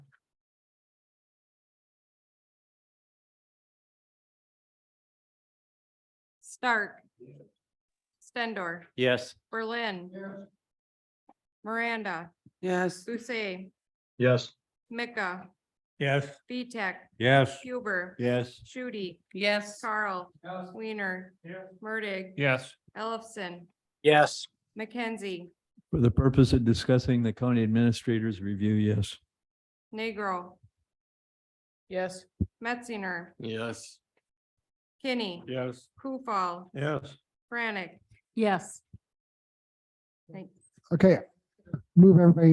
Stark. Stendor, Yes. Berlin, Miranda, Yes. Busse, Yes. Mika, Yes. Vitek, Yes. Huber, Yes. Shudi, yes, Carl, Weiner, Murdig, Yes. Ellefson, Yes. McKenzie, For the purpose of discussing the county administrator's review, yes. Negro, yes, Metzinger, Yes. Kinney, Yes. Kufal, Yes. Brannick. yes. Thanks. Okay, move everybody